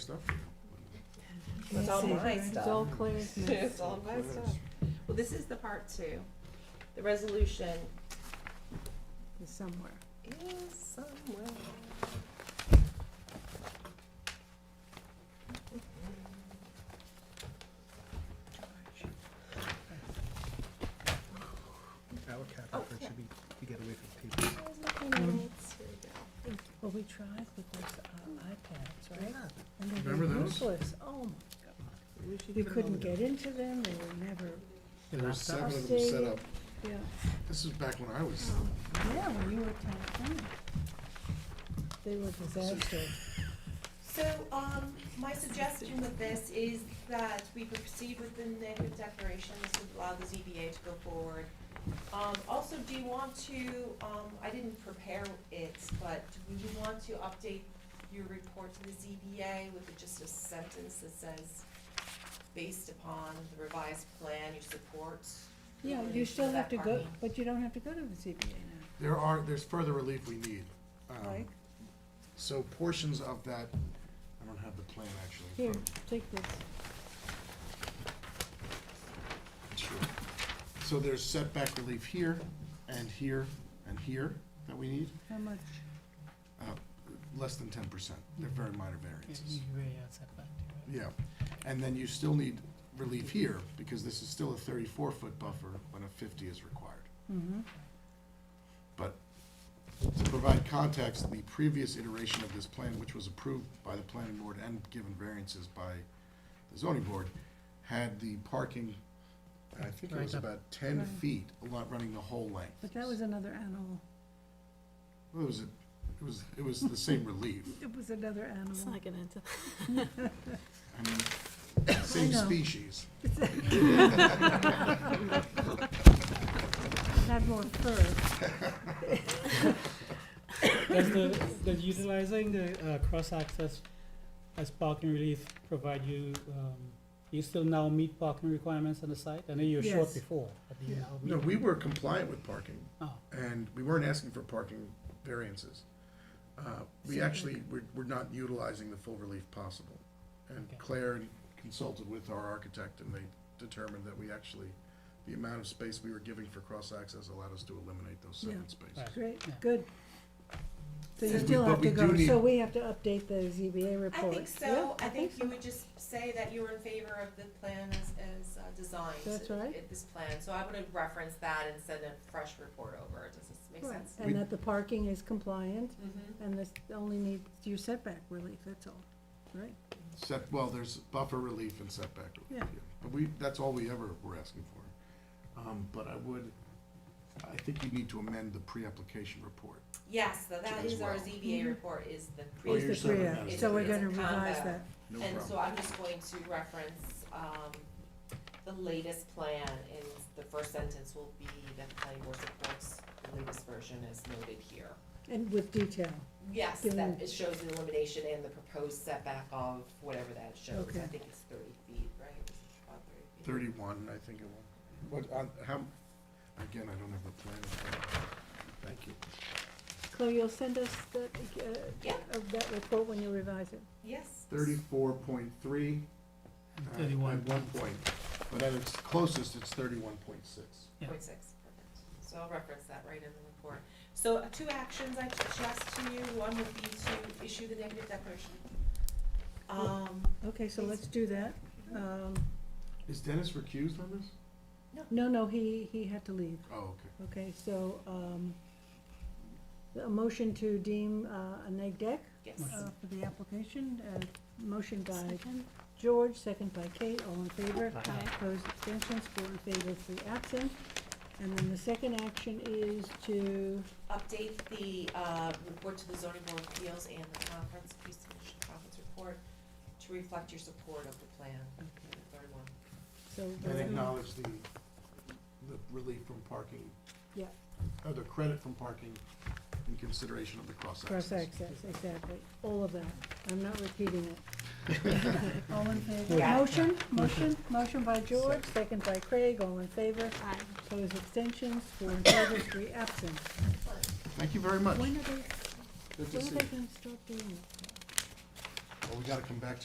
Stuff. It's all my It's all stuff. Claire's mess. It's all my stuff. Well, this is the part two. The resolution It's somewhere. is somewhere. Our cap Oh, effort yeah. should be to get away from people. Where's my pen? Here we go. Well, we tried with those uh, iPads, right? And they were Remember those? useless. Oh, my We should God. We put it couldn't on there. get into them. They were never, Yeah, there's seven Laptop. of them set up. yeah. This is back when I was, Yeah, when you were ten. They were disaster. So, um, my suggestion with this is that we proceed with the negative declaration, this would allow the ZBA to go forward. Um, also, do you want to, um, I didn't prepare it, but do you want to update your report to the ZBA with just a sentence that says, based upon the revised plan, you support? Yeah, going you for still that have to go, parking? but you don't have to go to the CBA now, there are, there's further relief we need. Um, Like So portions of that, I don't have the plan actually. in Here, front take this. of me. Sure. So there's setback relief here and here and here that we need, How much? uh, less than ten percent. They're very minor variances. Mm-hmm. Yeah, and then you still need relief here because this is still a thirty-four foot buffer when a fifty is required. Mm-hmm. But to provide context, the previous iteration of this plan, which was approved by the planning board and given variances by the zoning board, had the parking, I think it was about ten Right. feet, a lot running the whole length. But that was another animal. Well, It was, a- it was, it was the same relief. It was another It's animal. not gonna, enter- I mean, same know. species. It had more fur. Does the, does utilizing the uh, cross access as parking relief provide you, um, you still now meet parking requirements on the site? I know you were short Yes. before, but do you Yeah. now meet? No, we were compliant with parking Oh, and we weren't asking for parking variances. Uh, We actually, we're, we're not utilizing the full relief possible. And Okay. Claire consulted with our architect and they determined that we actually, the amount of space we were giving for cross-access allowed us to eliminate those seven Yeah. spaces. Right. Yeah. Great, good. So you And we- still but have we to do go, need- so we have to update the ZBA I report. think so, Yeah, I think so. you would just say that you were in favor of the plan as, as uh, designed. That's uh, right. uh, This plan, so I would reference that and send a fresh report over, does this make Right, sense? We- And that the parking is compliant, Mhm. and this only needs your setback relief, that's all, right? Set, well, there's buffer relief and setback relief. Yeah. But we, that's all we ever were asking for. Um, But I would, I think you need to amend the pre-application report. Yes, so that As is our well. ZBA report is the Oh, pre, you're Is Mm-hmm. the saying pre-app, that is So we're correct. gonna revise Combo. that. No and so problem. I'm just going to reference, um, the latest plan, and the first sentence will be that the planning board supports the latest version as noted here. And with detail, Yes, Give that, me- it shows the elimination and the proposed setback of whatever that shows, I Okay. think it's thirty feet, right? About feet. Thirty-one, I think it was. What, on, how, again, I don't have the plan. in front of me. Thank you. Chloe, you'll send us that, uh, Yeah. of that report when you revise it. Yes. Thirty-four point three. and thirty-one. At one point, but at its closest, it's thirty-one point six. Yeah. Point six, perfect. So I'll reference that right in the report. So uh, two actions I suggest to you, one would be to issue the negative declaration. Um, Okay, so let's do that. Um, Is Dennis recused on this? no, no, he, he had to leave. Oh, okay. Okay, so, um, a motion to deem, uh, a neg deck, yes. uh, for the application, uh, motion by George, second by Kate, all in favor. Aye. Aye. Opposed, abstentions, four in favor, three absent. And then the second action is to, Update the, uh, report to the zoning board of appeals and the conference, pre-submission conference report to reflect your support of the plan, the third one. so. And acknowledge the, the relief from parking. Yeah. Or the credit from parking in consideration of the cross access. Cross access, exactly, all of that, I'm not repeating it. All in favor? Yeah. Motion, motion, motion by George, second by Craig, all in favor, aye. opposed abstentions, four in favor, three absent. Thank you very much. When are they, Good to when are see they you. gonna stop doing it? Well, we gotta come back to